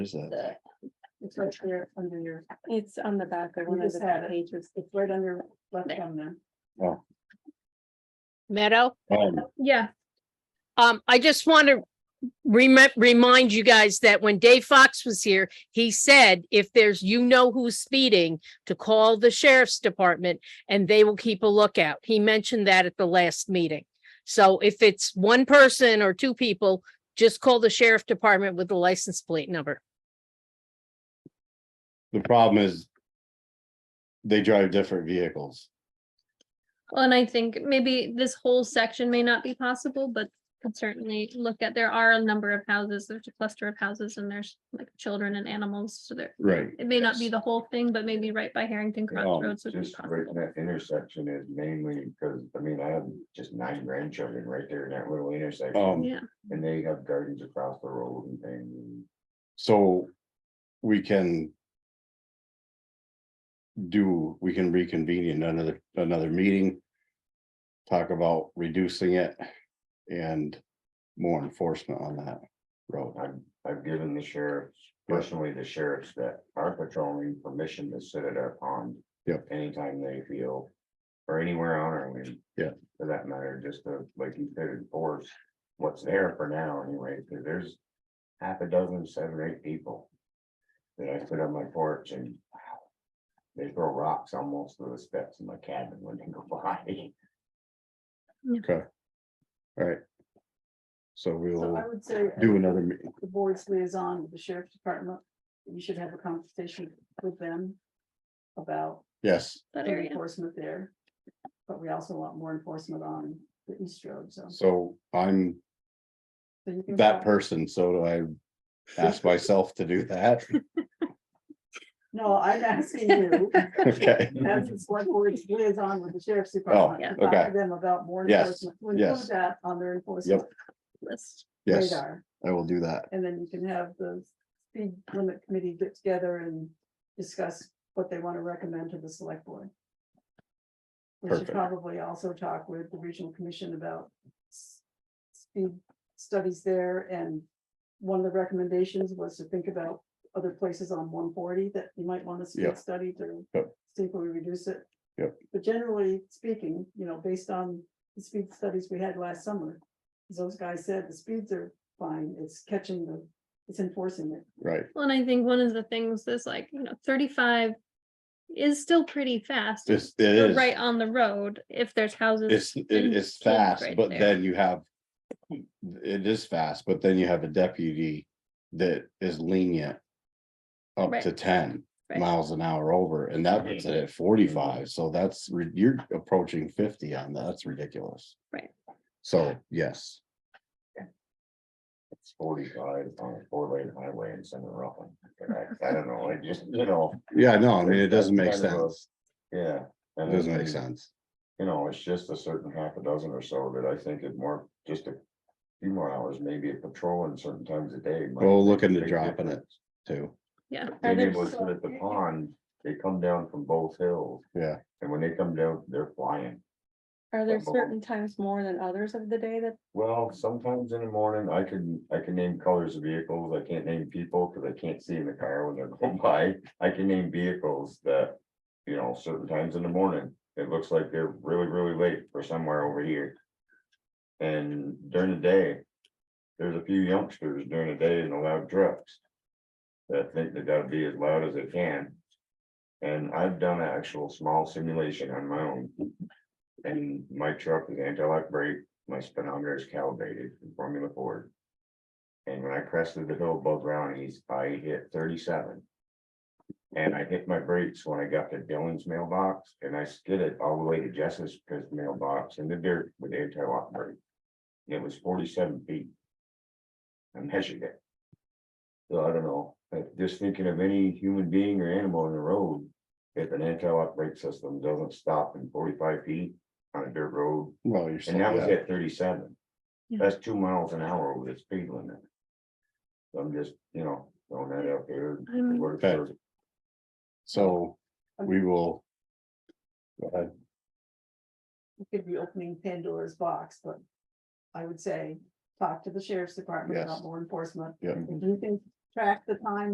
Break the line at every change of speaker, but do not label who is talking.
Is that?
the- It's right there under your,
It's on the back of
We
one of
just
the
had
back
it.
pages.
it's right under left
There.
thumb there.
Meadow.
Um,
Yeah,
Um, I just want to remind, remind you guys that when Dave Fox was here, he said if there's, you know who's speeding, to call the sheriff's department and they will keep a lookout. He mentioned that at the last meeting. So if it's one person or two people, just call the sheriff department with the license plate number.
the problem is. They drive different vehicles.
well, and I think maybe this whole section may not be possible, but could certainly look at, there are a number of houses, there's a cluster of houses and there's like children and animals, so there.
Right.
It may not be the whole thing, but maybe right by Harrington
Um,
Crossroads would be
Just right in
possible.
that intersection is mainly because, I mean, I have just nine grandchildren right there in that little intersection.
Um,
Yeah,
And they have gardens across the road and things.
So we can. Do, we can reconvene in another, another meeting. Talk about reducing it and more enforcement on that road.
I've, I've given the sheriffs, personally, the sheriffs that are patrolling permission to sit at our pond.
Yep.
Anytime they feel, or anywhere on our land.
Yeah.
For that matter, just to, like you said, enforce what's there for now anyway, because there's half a dozen, seven, or eight people. That I put on my porch and wow, they throw rocks almost to the steps in my cabin when they go by.
So
So I
we'll
would say.
do another meeting.
The board's liaison with the sheriff's department, you should have a conversation with them. About
Yes,
that
the
area.
enforcement there. But we also want more enforcement on the East Road, so.
so I'm
so you can
that
talk-
person, so do I ask myself to do that?
No, I'm asking you,
Okay,
as the select board's liaison with the sheriff's department.
Yeah.
to talk to
Oh, okay.
Them about more
Yes,
enforcement. We'll include
yes.
That on their enforcement
List.
yes,
radar.
I will do that.
And then you can have the speed limit committee get together and discuss what they want to recommend to the select board. We should
Perfect.
probably also talk with the regional commission about s- speed studies there and one of the recommendations was to think about other places on one forty that you might want to
Yeah.
speed study to
Yep.
see if we reduce it.
Yep.
But generally speaking, you know, based on the speed studies we had last summer, as those guys said, the speeds are fine, it's catching the, it's enforcing it.
Right,
Well, and I think one of the things is like, you know, thirty-five is still pretty fast.
this, it
but
is.
Right on the road, if there's houses.
It's, it
and
is
kids
fast,
right
but
there.
then you have. It is fast, but then you have a deputy that is lenient. Up
Right.
to ten
Right.
miles an hour over, and that puts
Mm-hmm.
it at forty-five, so that's, re- you're approaching fifty on that, that's ridiculous.
Right.
So, yes,
It's forty-five on a four-lane highway in Center Rockland. I I don't know, I just, you know,
yeah, no, I mean, it
That's
doesn't make
kind of a-
sense,
yeah.
it
and
doesn't
it's-
make sense,
You know, it's just a certain half a dozen or so that I think it more, just a few more hours, maybe a patrol and certain times a day. might
Well,
make a
look into
big
dropping it.
difference.
too,
Yeah,
Being
Are there
able to sit
so-
at the pond, they come down from both hills,
yeah,
and when they come down, they're flying.
Are there
Couple.
certain times more than others of the day that
Well, sometimes in the morning, I can, I can name colors of vehicles, I can't name people, because I can't see in the car when they're going by, I can name vehicles that. You know, certain times in the morning, it looks like they're really, really late for somewhere over here. And during the day, there's a few youngsters during the day in the loud trucks. That think they gotta be as loud as they can. And I've done an actual small simulation on my own. And my truck is anti-lock brake, my speedometer is calibrated in Formula Ford. And when I crested the hill above Brownies, I hit thirty-seven. And I hit my brakes when I got to Dylan's mailbox and I skidded all the way to Jess's mailbox in the dirt with anti-lock brake. And It was forty-seven feet. I measured it. So I don't know, but just thinking of any human being or animal on the road, if an anti-lock brake system doesn't stop in forty-five feet on a dirt road,
well, you're. still-
and that was
yeah.
at thirty-seven.
Yeah.
That's two miles an hour over the speed limit. So I'm just, you know, throwing that out there.
I'm-
What if
Okay.
there's-
So, we will. Go ahead.
It could be opening Pandora's box, but I would say, talk to the sheriff's department about
Yes.
more enforcement.
Yeah.
If you can track the time